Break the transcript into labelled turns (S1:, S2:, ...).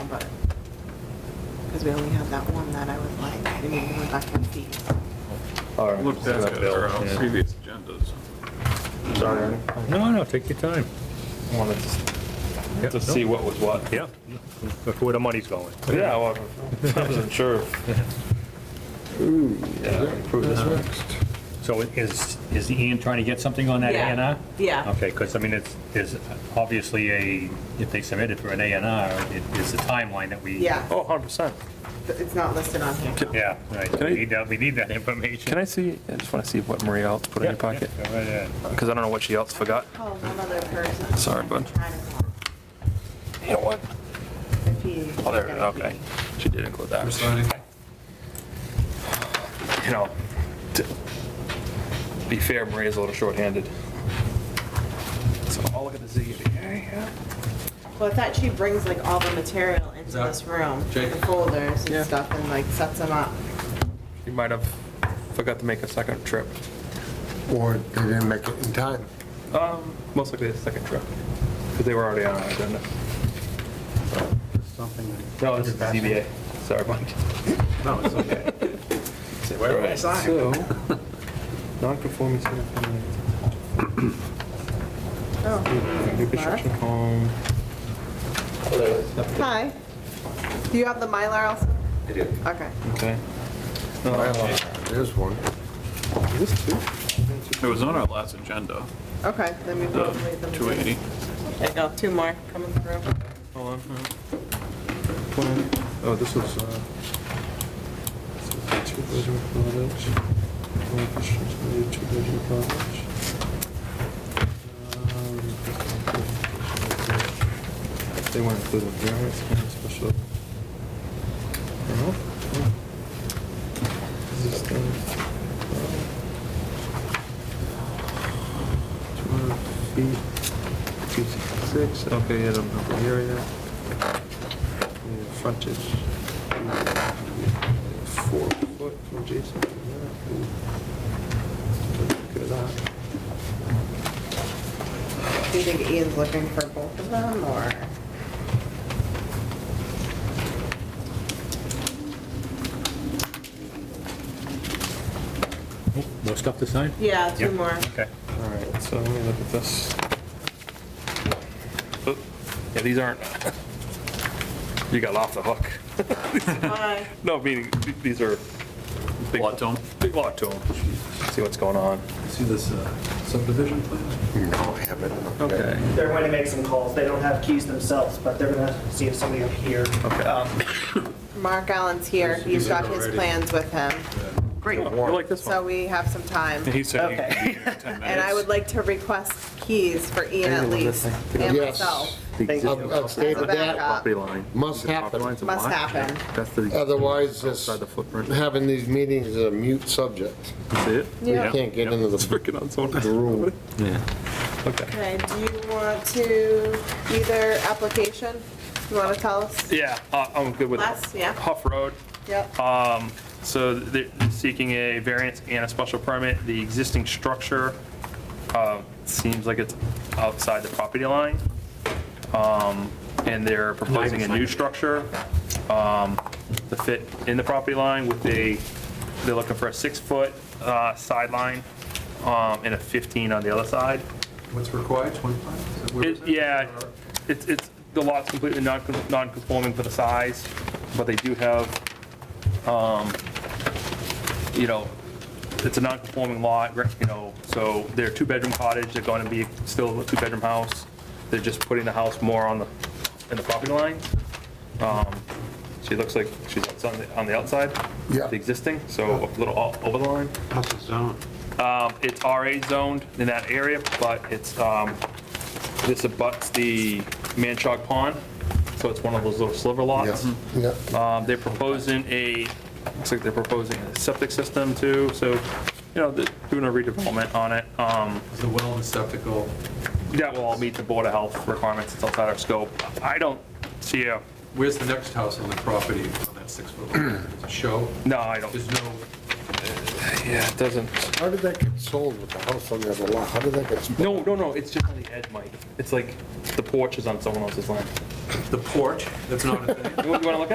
S1: because we only had that one that I was like, I didn't even go back and see.
S2: All right.
S3: Look back at our uh, previous agendas.
S2: Sorry, Ernie.
S4: No, no, take your time.
S2: I wanted to s-
S4: Yeah,
S2: to
S4: no.
S2: see what was what.
S4: Yeah, look where the money's going.
S2: Yeah, well, I wasn't sure. Ooh, yeah, approve this one.
S4: So is, is Ian trying to get something on that A
S1: Yeah.
S4: and R?
S1: Yeah.
S4: Okay, because I mean, it's, there's obviously a, if they submitted for an A and R, it is a timeline that we.
S1: Yeah,
S2: Oh, 100%.
S1: but it's not listed on here.
S4: Yeah, right,
S2: Can I-
S4: we need that, we need that information.
S2: Can I see, I just want to see what Maria else put in your pocket, because I don't know what she else forgot.
S1: Call Oh, one other person.
S2: Sorry, bud.
S1: Trying to call
S2: You know what?
S1: if he-
S2: Oh, there, okay. She did include that. You know, to be fair, Maria's a little shorthanded. So I'll look at the ZBA.
S1: Well, I thought she brings like all the material into
S5: that
S1: this room,
S5: Jake?
S1: the folders
S2: Yeah.
S1: and stuff, and like sets them up.
S2: You might have forgot to make a second trip.
S5: Or they didn't make it in time.
S2: Um, most likely a second trip, because they were already on our agenda. No, this is the ZBA. Sorry, Mike.
S5: No, it's okay.
S2: Where was I? So, non-conforming single family
S1: Oh.
S2: new construction home.
S1: Hi. Do you have the Mylar also?
S5: I do.
S1: Okay.
S2: Okay. No, okay.
S5: There's one.
S2: Is this two?
S3: It was on our last agenda,
S1: Okay, then we
S3: the
S1: will leave them.
S3: 280.
S1: There you go, two more coming through.
S2: Hold on. Plan. Oh, this was, uh. this is a Two-bedroom cottage. Plan construction, a two-bedroom cottage. Um, They went through the variance and special. I don't know. Is this the- uh, 200 feet. 266, okay, I don't know the area. Yeah, Frontage. Four foot from Jason. to that. Ooh. Look at that.
S1: Do you think Ian's looking for both of them, or?
S4: More Oh, stuff to sign?
S1: Yeah, two
S4: Yep.
S1: more.
S4: Okay.
S2: All right, so let me look at this. Oop. Yeah, these aren't, you got off the hook.
S1: Hi.
S2: No, meaning, th- these are. big-
S3: Lot to 'em.
S2: Big lot to 'em. See what's going on.
S3: See this uh, subdivision plan?
S5: No, I haven't.
S6: They're going to make some calls. They don't have keys themselves, but they're going to see if somebody up here.
S2: Okay.
S6: um,
S1: Mark Allen's here, he's got his plans with him,
S2: Great. You like this
S1: so
S2: one?
S1: we have some time.
S2: And he said he could
S6: Okay.
S2: be here in 10 minutes.
S1: And I would like to request keys for Ian at least, and
S5: Yes.
S1: myself,
S6: Thank you.
S5: I've stayed
S1: as a
S5: with that.
S1: backup.
S2: line.
S5: Uh, Must happen.
S1: Must happen.
S2: That's the,
S5: Otherwise, this,
S2: Outside the footprint.
S5: having these meetings is a mute subject.
S2: that's it?
S1: Yeah.
S5: Can't get into
S2: It's
S5: the
S2: freaking on so
S5: the room.
S2: Okay.
S1: Okay, do you want to, either application, you want to tell us?
S2: Yeah, uh, I'm good with it.
S1: Les, yeah.
S2: Huff Road.
S1: Yep.
S2: So they're seeking a variance and a special permit. The existing structure uh, seems like it's outside the property line. Um, And they're proposing a new structure um, to fit in the property line with a, they're looking for a six-foot uh, sideline um, and a 15 on the other side.
S7: What's required, 25? Is that where
S2: It-
S7: it's at?
S2: Yeah, it's, it's, the lot's completely non- non-conforming for the size, but they do have, um, you know, it's a non-conforming lot, you know, so they're two-bedroom cottage, they're gonna be still a two-bedroom house. They're just putting the house more on the, in the property line. Um, She looks like she's outs- on the, on the outside.
S5: Yeah.
S2: The existing, so a little o- over the line.
S7: How's it zoned?
S2: Um, It's RA zoned in that area, but it's, um, this abuts the Manchog Pond, so it's one of those little sliver lots.
S5: Yeah, yeah.
S2: Um, They're proposing a, looks like they're proposing a septic system too, so, you know, they're doing a redevelopment on it. Um,
S7: Is the well and septic all
S2: That will all meet the Board of Health requirements, it's outside our scope. I don't see a,
S7: Where's the next house on the property on that six-foot line? Is it show?
S2: no, I don't,
S7: There's no,
S2: yeah, it doesn't.
S5: How did that get sold with the house on the other lot? How did that get? split?
S2: No, no, no, it's just on the edge, Mike. It's like the porch is on someone else's land.
S7: the porch, that's not a thing?
S2: You want to look at it?